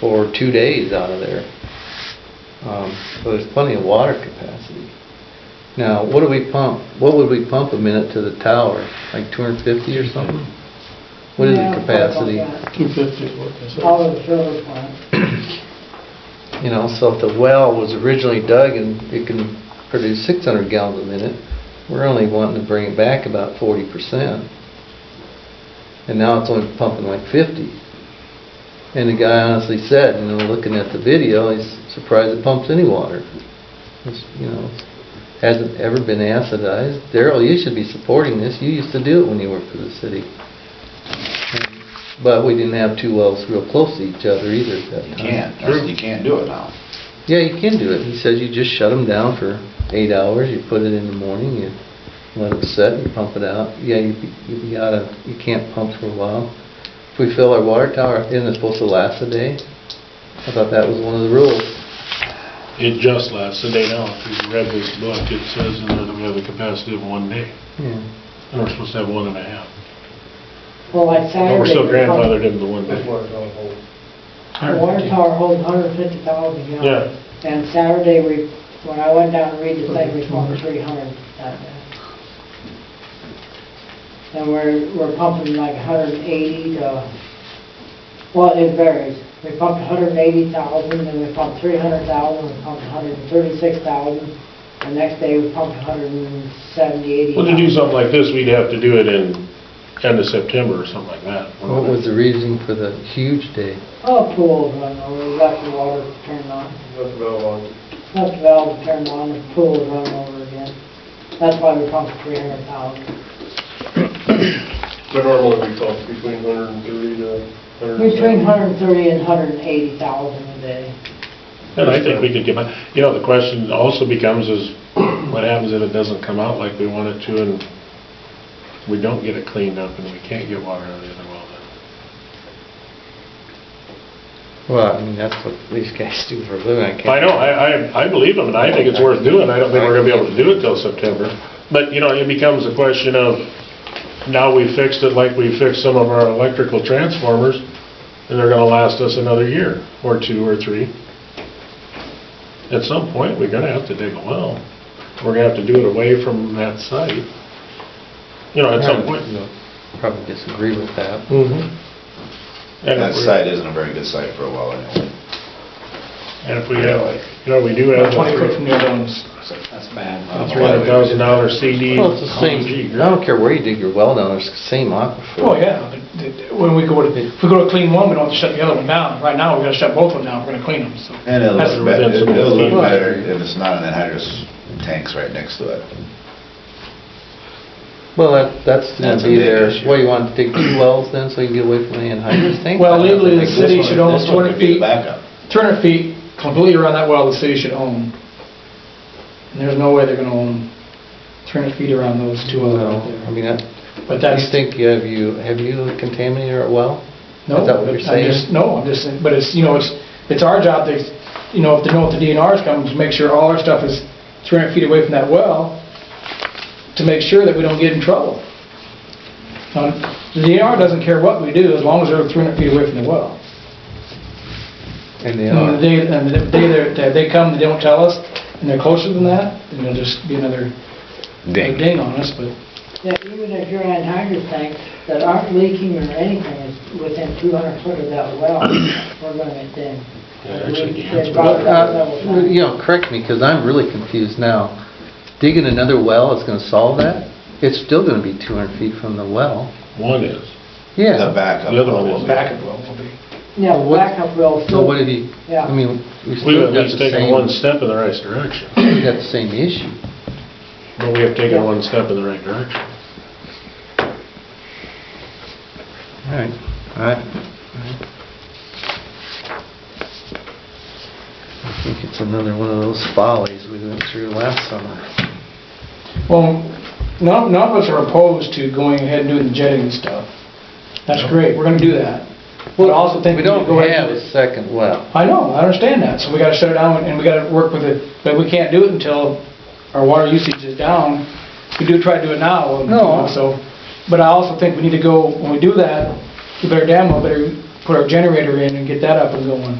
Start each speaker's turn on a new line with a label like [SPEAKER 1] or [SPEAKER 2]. [SPEAKER 1] for two days out of there. Um, So there's plenty of water capacity. Now, what do we pump, what would we pump a minute to the tower? Like 250 or something? What is the
[SPEAKER 2] Yeah,
[SPEAKER 1] capacity?
[SPEAKER 2] something like
[SPEAKER 3] 250 is what they
[SPEAKER 2] that.
[SPEAKER 3] said.
[SPEAKER 2] All of the service plant.
[SPEAKER 1] You know, so if the well was originally dug and it can produce 600 gallons a minute, we're only wanting to bring it back about 40%. And now it's only pumping like 50. And the guy honestly said, you know, looking at the video, he's surprised it pumps any water. It's, You know, hasn't ever been acidized. Daryl, you should be supporting this. You used to do it when you worked for the city. But we didn't have two wells real close to each other either at that
[SPEAKER 4] You
[SPEAKER 1] time.
[SPEAKER 4] can't, that's- you can't do it now.
[SPEAKER 1] Yeah, you can do it. He says you just shut them down for eight hours, you put it in the morning, you let it set, you pump it out. Yeah, you, you gotta, you can't pump for a while. If we fill our water tower, isn't it supposed to last a day? I thought that was one of the rules.
[SPEAKER 5] It just lasts a day now. If you read this book, it says in there that we have the capacity of one day.
[SPEAKER 1] Yeah.
[SPEAKER 5] And we're supposed to have one and a half.
[SPEAKER 2] Well, like Saturday.
[SPEAKER 5] But we're still
[SPEAKER 2] the pump-
[SPEAKER 5] grandfathered into the one day.
[SPEAKER 3] That's where it's on hold.
[SPEAKER 2] The water tower holds hundred fifty thousand gallons. And Saturday, we, when I went down to read the thing, we pumped three hundred that day. And we're, we're pumping like hundred and eighty to, well, it varies. We pumped hundred and eighty thousand, then we pumped three hundred thousand, we pumped hundred and thirty-six thousand. The next day, we pumped hundred and seventy, eighty.
[SPEAKER 5] Well, to do something like this, we'd have to do it in end of September or something like that.
[SPEAKER 1] What was the reason for the huge day?
[SPEAKER 2] Oh, pool's run over, we left the water turned on.
[SPEAKER 3] That's about on.
[SPEAKER 2] Left the valve turned on, the pool was running over again. That's why we pumped three hundred thousand.
[SPEAKER 3] But normally we talk between 130 to 170.
[SPEAKER 2] Between hundred and thirty and hundred and eighty thousand a day.
[SPEAKER 5] And I think we could get, by. you know, the question also becomes is, what happens if it doesn't come out like we want it to and we don't get it cleaned up and we can't get water out of the other well then?
[SPEAKER 1] Well, I mean, that's what these guys do for a living. I can't.
[SPEAKER 5] I know, I, I, I believe them and I think it's worth doing. I don't think we're gonna be able to do it till September. But, you know, it becomes a question of, now we fixed it like we fixed some of our electrical transformers and they're gonna last us another year or two or three. At some point, we're gonna have to dig a well. We're gonna have to do it away from that site. You know, at some point.
[SPEAKER 1] Probably disagree with that.
[SPEAKER 3] Mm-hmm.
[SPEAKER 5] Mhm. And if
[SPEAKER 4] That
[SPEAKER 5] we're-
[SPEAKER 4] site isn't a very good site for a well anyway.
[SPEAKER 5] And if we have, you know, we do have.
[SPEAKER 3] Twenty foot from the other ones.
[SPEAKER 4] That's bad.
[SPEAKER 5] A three hundred thousand dollar CD.
[SPEAKER 1] Well, it's the same,
[SPEAKER 5] Gee,
[SPEAKER 1] I don't care where you dig your well down, it's the same aquifer.
[SPEAKER 3] Oh, yeah, but th- th- when we go to, if we go to clean one, we don't have to shut the other one down. Right now, we gotta shut both of them down, we're gonna clean them, so.
[SPEAKER 4] And it'll
[SPEAKER 3] That's
[SPEAKER 4] look better,
[SPEAKER 5] residential.
[SPEAKER 4] it'll look better if it's not an anhydrous tanks right next to it.
[SPEAKER 1] Well, that- that's going
[SPEAKER 4] That's
[SPEAKER 1] to
[SPEAKER 4] a
[SPEAKER 1] be
[SPEAKER 4] big
[SPEAKER 1] there.
[SPEAKER 4] issue.
[SPEAKER 1] What, you want to dig two wells then, so you can get away from the anhydrous tank?
[SPEAKER 3] Well, legally, the
[SPEAKER 1] This
[SPEAKER 3] city
[SPEAKER 1] one-
[SPEAKER 3] should own
[SPEAKER 4] This one could be the backup.
[SPEAKER 3] 200 feet completely around that well the city should own. And there's no way they're gonna own 300 feet around those two wells
[SPEAKER 1] No,
[SPEAKER 3] out there.
[SPEAKER 1] I mean, that-
[SPEAKER 3] But
[SPEAKER 1] you
[SPEAKER 3] that's,
[SPEAKER 1] think you have you, have you contaminated our well?
[SPEAKER 3] no,
[SPEAKER 1] is that what you're
[SPEAKER 3] I'm
[SPEAKER 1] saying?
[SPEAKER 3] just, no, I'm just, saying- but it's, you know, it's, it's our job to, you know, if the, know if the DNR's coming, to make sure all our stuff is 300 feet away from that well, to make sure that we don't get in trouble. Now, The DNR doesn't care what we do, as long as they're 300 feet away from the well.
[SPEAKER 1] And they
[SPEAKER 3] And the
[SPEAKER 1] are.
[SPEAKER 3] day, and the day they're- that they come, they don't tell us, and they're closer than that, then it'll just be another another ding on us, but
[SPEAKER 2] That even if you're on hydro tanks that aren't leaking or anything, is within two hundred foot of that well, we're gonna get dinged.
[SPEAKER 5] Yeah, actually, the
[SPEAKER 2] We-
[SPEAKER 5] answer
[SPEAKER 2] they
[SPEAKER 5] is-
[SPEAKER 2] brought it up several
[SPEAKER 1] Uh,
[SPEAKER 2] times.
[SPEAKER 1] You know, correct me, because I'm really confused now. Digging another well is going to solve that? It's still going to be 200 feet from the well.
[SPEAKER 5] One is.
[SPEAKER 4] The
[SPEAKER 1] Yeah.
[SPEAKER 4] backup.
[SPEAKER 5] The other one is
[SPEAKER 4] will be-
[SPEAKER 3] backup well will be.
[SPEAKER 2] Yeah,
[SPEAKER 1] Well, what-
[SPEAKER 2] backup well.
[SPEAKER 1] So
[SPEAKER 2] still-
[SPEAKER 1] what have you,
[SPEAKER 2] Yeah.
[SPEAKER 1] I mean, we
[SPEAKER 5] We've
[SPEAKER 1] still
[SPEAKER 5] at
[SPEAKER 1] got
[SPEAKER 5] least
[SPEAKER 1] the
[SPEAKER 5] taken one
[SPEAKER 1] same,
[SPEAKER 5] step in the right direction,
[SPEAKER 1] we got the same issue.
[SPEAKER 5] but we have taken one step in the right direction.
[SPEAKER 1] All right, all right. all right. I think it's another one of those follies we went through last summer.
[SPEAKER 3] Well, none, none of us are opposed to going ahead and doing the jetting and stuff. That's great, we're gonna do that. But I also think.
[SPEAKER 1] We
[SPEAKER 3] need to
[SPEAKER 1] don't
[SPEAKER 3] go ahead
[SPEAKER 1] have
[SPEAKER 3] and-
[SPEAKER 1] a second well.
[SPEAKER 3] I know, I understand that, so we gotta shut it down, and we gotta work with it, but we can't do it until our water usage is down. We do try to do it now, and, you know,
[SPEAKER 1] No.
[SPEAKER 3] so, but I also think we need to go, when we do that, we better damn well better put our generator in and get that up and going.